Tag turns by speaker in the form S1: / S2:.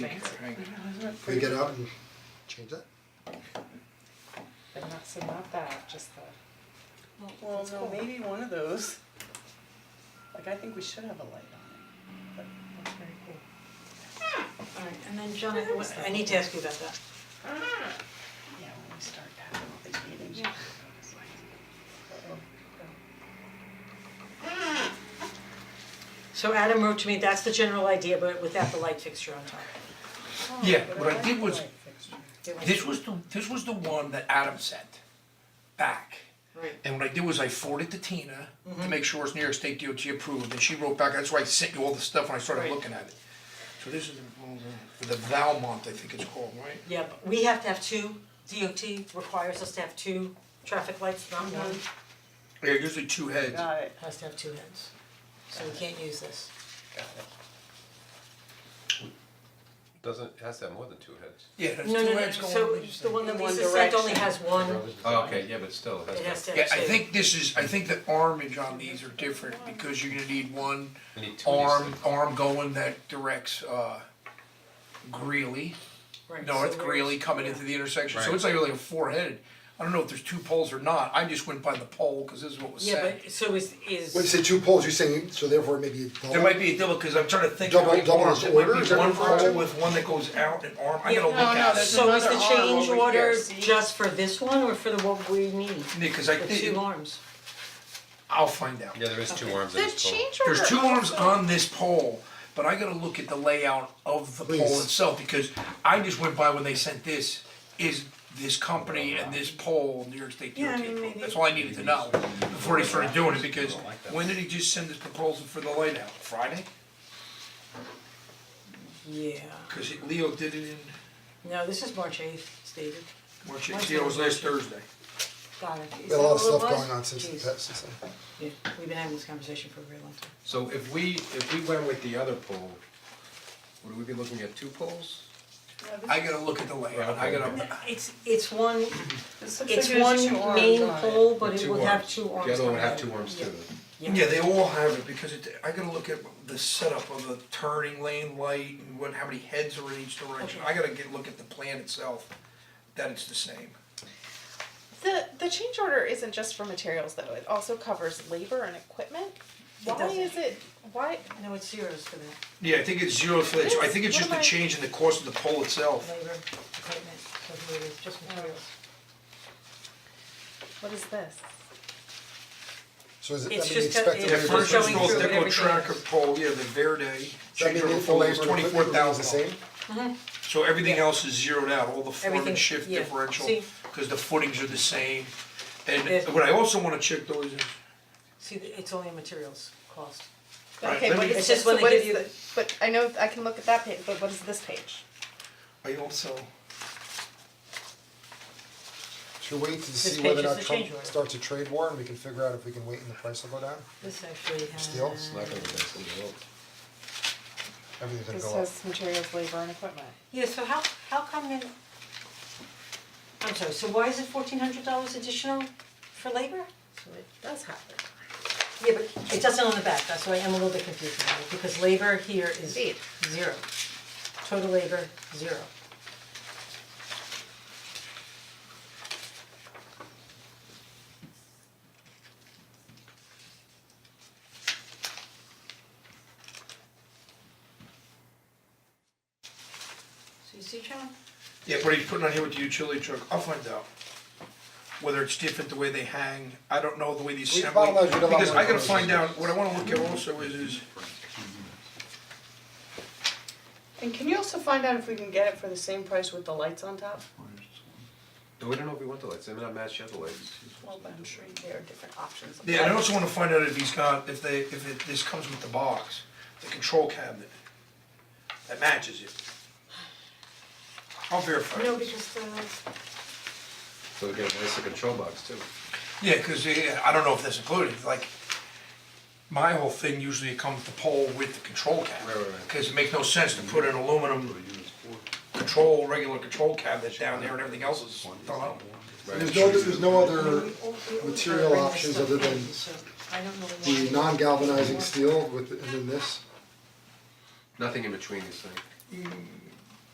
S1: Yeah,
S2: Can we get out and change that?
S3: But not, so not that, just the,
S1: Well,
S3: That's
S1: no,
S3: cool.
S1: maybe one of those. Like, I think we should have a light on
S3: that's very cool.
S4: Alright, and then John, I what- I need to ask you about that.
S1: it. Yeah, when we start having all these meetings.
S4: Yeah. So Adam wrote to me, that's the general idea, but without the light fixture on top.
S5: Yeah, what I did was,
S4: It was-
S5: this was the, this was the one that Adam sent back.
S4: Right.
S5: And what I did was I forwarded to Tina
S4: Mm-hmm.
S5: to make sure it's New York State DOT approved, and she wrote back, that's why I sent you all the stuff when I started
S4: Right.
S5: looking at it. So this is the, the Valmont, I think it's called, right?
S4: Yeah, but we have to have two, DOT requires us to have two traffic lights, not one,
S5: Yeah, usually two heads.
S1: Got it.
S4: has to have two heads. So we can't use this.
S6: Doesn't, it has to have more than two heads.
S5: Yeah, there's two
S4: No, no, no,
S5: heads going.
S4: so
S5: on each
S4: the
S5: side.
S4: one that
S1: In one
S4: Lisa sent only
S1: direction.
S4: has one,
S6: Oh, okay, yeah, but still,
S4: it
S6: it
S4: has
S6: has
S4: to
S6: to.
S4: have two.
S5: Yeah, I think this is, I think the armage on these are different, because you're gonna need one
S6: We need two of these
S5: arm,
S6: things.
S5: arm going that directs, uh, Greeley.
S4: Right, so
S5: North
S4: we're-
S5: Greeley coming
S4: yeah.
S5: into the intersection, so
S6: Right.
S5: it's like really a four headed. I don't know if there's two poles or not, I just went by the pole, cause this is what was
S4: Yeah,
S5: said.
S4: but so is is.
S2: When you say two poles, you're saying, so therefore maybe double?
S5: There might be a double, cause I'm trying to think.
S2: Double-
S5: how many
S2: double
S5: arms.
S2: is
S5: It might
S2: order,
S5: be
S2: is that
S5: one
S2: what we're talking
S5: pole
S2: about?
S5: with one that goes out and arm, I'm
S4: Yeah,
S5: gonna look
S1: no, no,
S5: at it.
S1: there's-
S4: So is the
S1: another arm
S4: change
S1: over
S4: order
S1: here, see?
S4: just for this one or for the what we need?
S5: Yeah, 'cause I
S4: The
S5: think-
S4: two arms.
S5: I'll find out.
S6: Yeah, there is two arms in
S7: The
S6: this pole.
S7: change order.
S5: There's two arms
S7: also-
S5: on this pole, but I gotta look at the layout of the pole
S2: Please.
S5: itself, because I just went by when they sent this, is this company and this pole, New York State DOT
S4: Yeah, I mean,
S5: approved.
S4: maybe-
S5: that's all I needed to know before they started doing it, because when did he just send this proposal for the layout? Friday?
S4: Yeah,
S5: Cause it- Leo did it in,
S4: no, this is March eighth, it's dated,
S5: March eighth, yeah, it was last Thursday.
S4: got it. Is
S2: We had a
S4: that
S2: lot of
S4: all it
S2: stuff
S4: was?
S2: going on since, the
S4: Jeez.
S2: past- since then.
S4: Yeah, we've been having this conversation for a very long time.
S6: So if we, if we went with the other pole, would we be looking at two poles?
S5: I gotta look at the layout, I gotta,
S4: It's it's one,
S1: This looks
S4: it's
S1: like there's two
S4: one
S1: arms
S4: main
S1: on it.
S4: pole,
S6: With
S4: but it will have two arms.
S6: The other one would have
S4: coming
S6: two
S4: out.
S6: arms too.
S4: Yeah.
S5: yeah, they all have it, because it, I gotta look at the setup of the turning lane light and what, how many heads are in each direction.
S4: Okay.
S5: I gotta get, look at the plan itself, that it's the same.
S7: The, the change order isn't just for materials though, it also covers labor and equipment. Why
S4: doesn't.
S7: is it, why,
S4: No, it's zeros for that,
S5: Yeah, I think it's zero for that, I think it's just the
S7: What am I-
S5: change in the cost of the pole itself.
S4: labor, equipment, doesn't matter, it's just materials.
S7: what is this?
S2: So is it,
S4: It's
S2: that mean
S4: just got-
S2: expected
S4: Yeah,
S5: The
S4: it's
S2: labor
S5: first
S2: to
S5: one's
S2: be
S4: showing
S5: called
S2: the same?
S4: through it.
S5: Deco
S4: everything
S5: Tracker
S4: is.
S5: pole, yeah, the Verde,
S2: That
S5: change
S2: mean
S5: order
S2: if the
S5: pole is
S2: labor and equipment
S5: twenty-four
S2: remains the
S5: thousand.
S2: same?
S5: So everything else is zeroed out, all the form
S4: Everything,
S5: and shift
S4: yeah.
S5: differential,
S4: See?
S5: cause the footings are the same.
S4: Yes.
S5: And what I also wanna check though is,
S4: See, it's only a materials cost.
S5: Right,
S7: Okay,
S5: let
S7: what
S5: me-
S7: is
S4: It's
S7: this,
S4: just when
S7: so
S4: they
S7: what
S4: give
S7: is
S4: you-
S7: the, but I know, I can look at that page, but what is this page?
S5: I also,
S2: Should we wait to see
S4: page
S2: whether or
S4: is
S2: not
S4: the
S2: Trump
S4: change order.
S2: starts a trade war and we can figure out if we can wait and the price will go down?
S4: This actually has.
S2: Steel?
S6: It's not gonna be nice in the world.
S2: Everything's
S7: This
S2: gonna go up.
S7: says materials, labor and equipment.
S4: Yeah, so how how come in I'm sorry, so why is it fourteen hundred dollars additional for labor?
S7: So it does happen.
S4: Yeah, but it doesn't on the back, that's why I'm a little bit confused about it, because labor here is
S7: Indeed.
S4: zero. Total labor, zero. So you see, John?
S5: yeah, but he's putting on here with the utility truck, I'll find out. Whether it's different the way they hang, I don't know the way these
S2: We-
S5: assembly,
S2: bottom line, we don't have
S5: because
S2: one
S5: I gotta
S2: of those.
S5: find out, what I wanna look at also is, is,
S1: And can you also find out if we can get it for the same price with the lights on top?
S6: No, we don't know if we want the lights, they may not match the other lights.
S1: Well, but I'm sure there are different options. of
S5: Yeah, and I
S1: lights.
S5: also wanna find out if he's got, if they, if it, this comes with the box, the control cabinet, that matches it. I'll verify.
S4: No, because the
S6: So we get a nicer control box too.
S5: Yeah, cause eh, I don't know if that's included, like, my whole thing usually it comes the pole with the control cabinet.
S6: Right, right, right.
S5: Cause it makes no sense to put an aluminum control, regular control cabinet down there and everything else is thrown out.
S2: There's no, there's no other Uh, material options other than the non-galvanizing steel with, and then this?
S6: Nothing in between these things.